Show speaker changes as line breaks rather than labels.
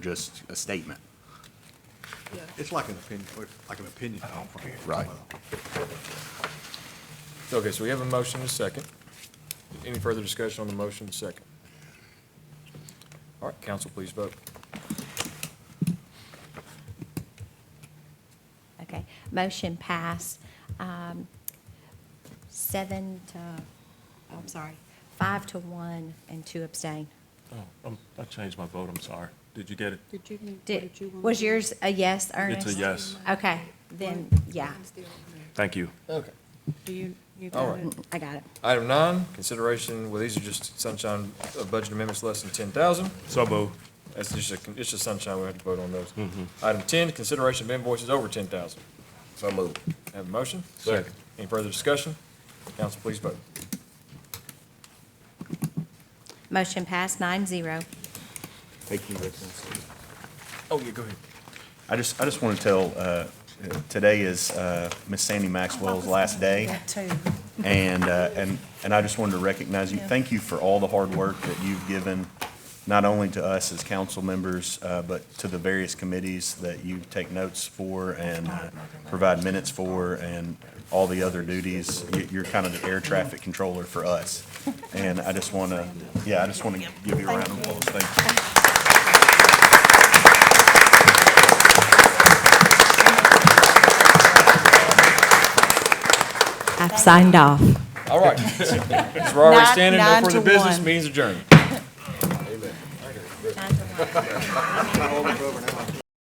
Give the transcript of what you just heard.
just a statement.
It's like an opinion, or like an opinion conference.
Right.
Okay, so we have a motion and a second. Any further discussion on the motion and second? All right, council, please vote.
Okay, motion pass, um, seven to, oh, I'm sorry, five to one and two abstain.
Oh, um, I changed my vote, I'm sorry. Did you get it?
Did you, need- what
Did,
did you want?
was yours a yes, Ernest?
yes.
Okay, then, yeah,
Thank you.
Okay.
Do you, you
All
got
right.
it?
I got it.
Item nine, consideration, well, these are just sunshine uh, budget amendments less than ten thousand.
So moved.
That's just a, it's just sunshine, we have to vote on those. Item ten, consideration of invoices over ten thousand. Mm-hmm. So moved. Have a motion?
Second.
Any further discussion? Council, please vote.
Motion pass nine zero.
Thank you, Rick.
Oh, yeah, go ahead.
I just, I just want to tell, uh, today is uh, Miss Sandy Maxwell's last day,
That too.
and, uh, and, and I just wanted to recognize you. Thank you for all the hard work that you've given, not only to us as council members, uh, but to the various committees that you take notes for and uh, provide minutes for, and all the other duties. You- You're kind of the air traffic controller for us, and I just want to, yeah, I just want to give you a round of applause. Thank you.
I've signed off.
All right. So we're already
Nine-
standing, no
nine
further
to
business,
one.
means adjourned.
Nine to one.
All over now.